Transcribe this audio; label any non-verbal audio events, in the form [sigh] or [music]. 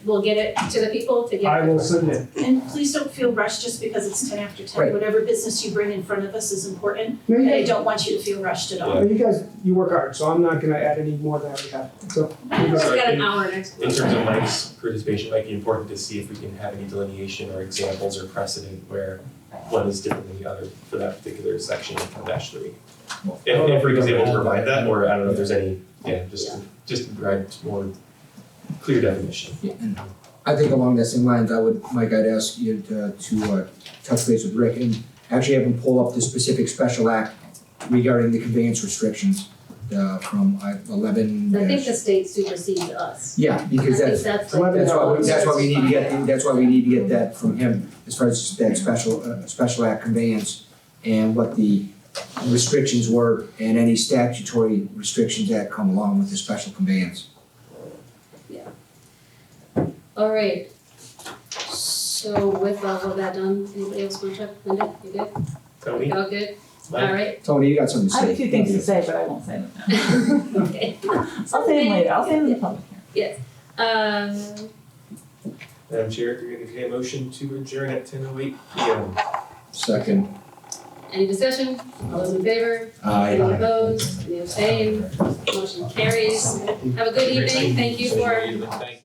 we'll get it to the people to I get it. will submit. And please don't feel rushed just because it's ten after ten. Right. Whatever business you bring in front of us is important, No, you and I guys, don't want you to feel rushed at all. no, you guys, you work hard, so I'm not gonna add any more than we have, so. We've you got an hour next In week. terms of Mike's participation, it might be important to see if we can have any delineation or examples or precedent where one is different than the other for that particular section of dash three. If, if Rick is able to provide that, or I don't know if there's any, yeah, just, just to provide more clear definition. I think along that same lines, I would, Mike, I'd ask you to, to uh, touch base with Rick and actually have him pull up the specific special act regarding the conveyance restrictions uh, from uh, eleven. I think dash- the state supersedes us. Yeah, I think because that's, that's Eleven like. that's why, hours. we- that's why we need to get, that's why we need to get that from him as far as that special, uh, special act conveyance and what the restrictions were and any statutory restrictions that come along with the special conveyance. All right. So with all of that done, anybody else want to check? Linda, you good? Tony, You all good? Mike? All [laughs] right. Tony, you got something to I say? have a few things to say, but I won't say them now. Okay. I'll say them later, I'll say them in the public hearing. Um, Madam Chair, if you're gonna get a motion to adjourn at ten oh eight P M. Second, any discussion? All those in favor? aye. Any opposed? Any abstained? Motion carries. Have a good evening. Thank you for Thank you.